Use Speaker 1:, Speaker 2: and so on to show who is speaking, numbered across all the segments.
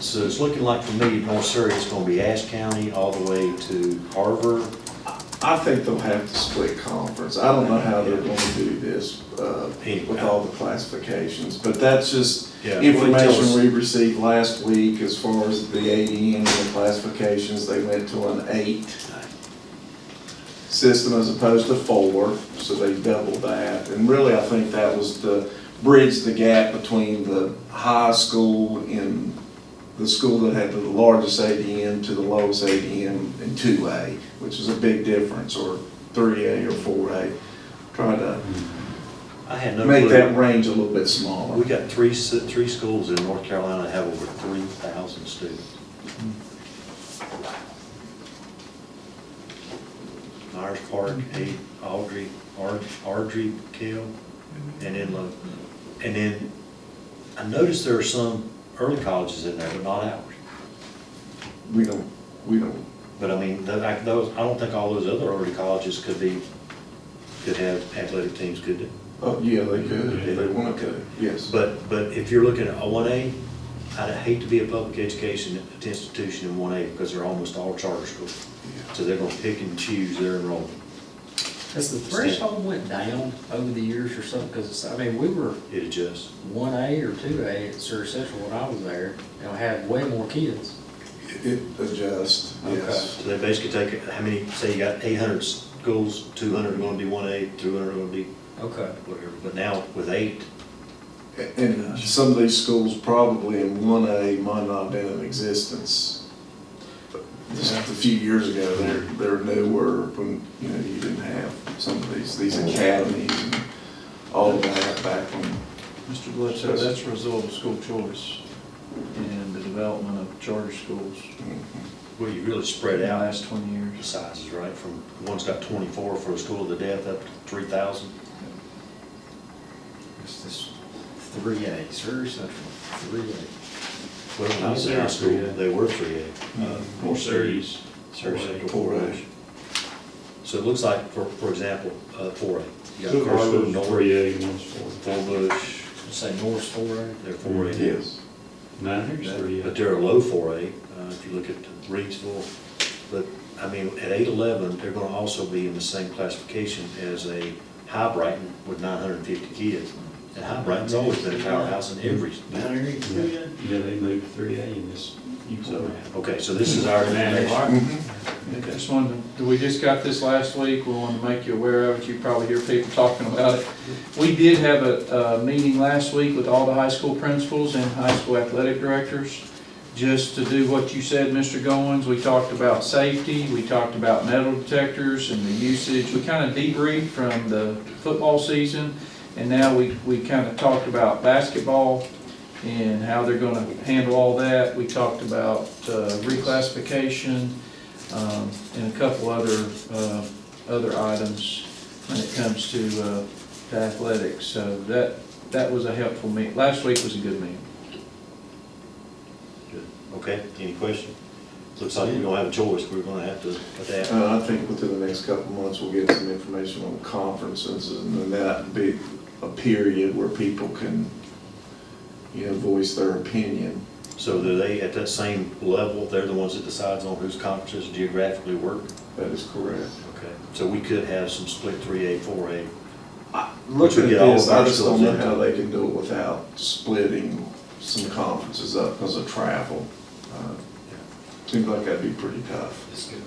Speaker 1: So it's looking like for me, North Surrey, it's gonna be Ashe County all the way to Carver.
Speaker 2: I think they'll have to split conference. I don't know how they're gonna do this, uh, with all the classifications, but that's just
Speaker 1: Yeah.
Speaker 2: information we received last week as far as the ADN and the classifications. They went to an eight system as opposed to four, so they doubled that. And really, I think that was to bridge the gap between the high school and the school that had the largest ADM to the lowest ADM in two A, which is a big difference, or three A or four A. Try to
Speaker 1: I had no
Speaker 2: make that
Speaker 1: clue.
Speaker 2: range a little bit
Speaker 1: We
Speaker 2: smaller.
Speaker 1: got three, s- three schools in North Carolina that have over three thousand students. Myers Park, A- Audrey, Ard- Ardrey, Kell, and Inlow. And then, I noticed there are some early colleges in there, but not ours.
Speaker 2: We don't, we don't,
Speaker 1: But I mean, tho- I- those, I don't think all those other early colleges could be, could have athletic teams, could they?
Speaker 2: oh, yeah, they could, if they wanted to, yes.
Speaker 1: But, but if you're looking at one A, I'd hate to be a public education institution in one A because they're almost all charter schools. So they're gonna pick and choose their enrollment.
Speaker 3: Has the threshold went down over the years or something? Because, I mean, we were
Speaker 1: It adjusts.
Speaker 3: one A or two A at Surrey Central when I was there, and I had way more kids.
Speaker 2: It adjusts, yes.
Speaker 1: So they basically take, how many, say you got eight hundred schools, two hundred are gonna be one A, two hundred are gonna be
Speaker 3: Okay.
Speaker 1: whatever. But now with eight,
Speaker 2: And some of these schools probably in one A might not have been in existence. Just a few years ago, there, there new were, when, you know, you didn't have some of these, these academies and all of that back when.
Speaker 4: Mr. Bledsoe, that's a result of school choice and the development of charter schools
Speaker 1: well, you really spread
Speaker 4: in the
Speaker 1: out
Speaker 4: last twenty
Speaker 1: the
Speaker 4: years.
Speaker 1: sizes, right? From, one's got twenty-four for a school to death up to three thousand.
Speaker 3: It's this three A, Surrey Central, three A.
Speaker 1: Well, when I was in high school, they were three A. Uh,
Speaker 4: Four series.
Speaker 1: Surrey Central
Speaker 2: Four
Speaker 1: four
Speaker 2: A.
Speaker 1: A. So it looks like, for, for example, uh, four A. You
Speaker 5: Two
Speaker 1: got Carver,
Speaker 5: versus
Speaker 1: Norwood,
Speaker 5: three A, one's four.
Speaker 1: Four Bush,
Speaker 3: Say Norris four A?
Speaker 1: they're four A.
Speaker 2: Yes.
Speaker 5: Nine, here's three
Speaker 1: But
Speaker 5: A.
Speaker 1: they're a low four A, uh, if you look at Reedsville. But, I mean, at eight eleven, they're gonna also be in the same classification as a High Brighton with nine hundred and fifty kids. And High Brighton's always been a powerhouse in every.
Speaker 5: Yeah, Yeah, they moved three A in this.
Speaker 1: So, okay, so this is our information.
Speaker 4: I Just wanted, to- we just got this last week, we wanted to make you aware of it, you probably hear people talking about it. We did have a, a meeting last week with all the high school principals and high school athletic directors, just to do what you said, Mr. Goins, we talked about safety, we talked about metal detectors and the usage, we kind of debriefed from the football season, and now we, we kind of talked about basketball and how they're gonna handle all that, we talked about, uh, reclassification, um, and a couple other, uh, other items when it comes to uh, to athletics. So that, that was a helpful meet. Last week was a good meeting.
Speaker 1: Good. Okay, any question? Looks like we don't have a choice, we're gonna have to adapt.
Speaker 2: Uh, I think within the next couple of months, we'll get some information on conferences, and then that'd be a period where people can, you know, voice their opinion.
Speaker 1: So are they at that same level, they're the ones that decides on whose conferences geographically work?
Speaker 2: That is correct.
Speaker 1: Okay. So we could have some split three A, four A.
Speaker 2: Looking at
Speaker 1: get all
Speaker 2: this,
Speaker 1: of our
Speaker 2: I just don't
Speaker 1: schools
Speaker 2: know
Speaker 1: into
Speaker 2: how
Speaker 1: it.
Speaker 2: they can do it without splitting some conferences up because of travel. Uh, Seems like that'd be pretty tough.
Speaker 6: Let's go.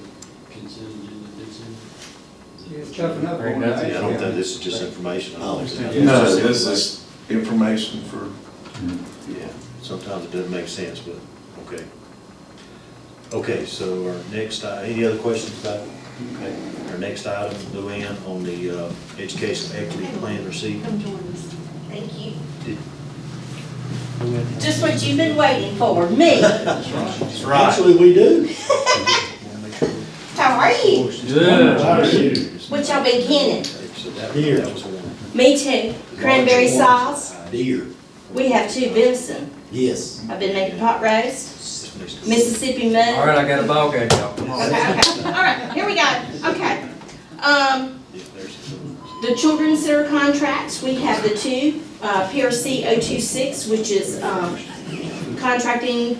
Speaker 6: Consent agenda, consent.
Speaker 3: Ain't
Speaker 1: I
Speaker 3: nothing.
Speaker 1: don't think this is just information. I don't think it's-
Speaker 2: No, this is information for,
Speaker 1: Yeah, sometimes it doesn't make sense, but, okay. Okay, so our next, i- any other questions about, okay, our next item, Luann, on the uh, education equity plan receipt?
Speaker 7: Come join us. Thank you.
Speaker 1: Did-
Speaker 7: Just what you've been waiting for, me.
Speaker 1: That's right. Actually, we do.
Speaker 7: How are you?
Speaker 5: How are you?
Speaker 7: What y'all been getting?
Speaker 1: So that, that was one.
Speaker 7: Me too. Cranberry sauce.
Speaker 6: Deer.
Speaker 7: We have two venison.
Speaker 6: Yes.
Speaker 7: I've been making pot roast,
Speaker 1: Mrs.
Speaker 7: Mississippi mud.
Speaker 3: All right, I got a ball game, y'all. Come on.
Speaker 7: Okay, okay. All right, here we go. Okay. Um, The Children's Center contracts, we oh have the two, uh, PRC 026, which is um, contracting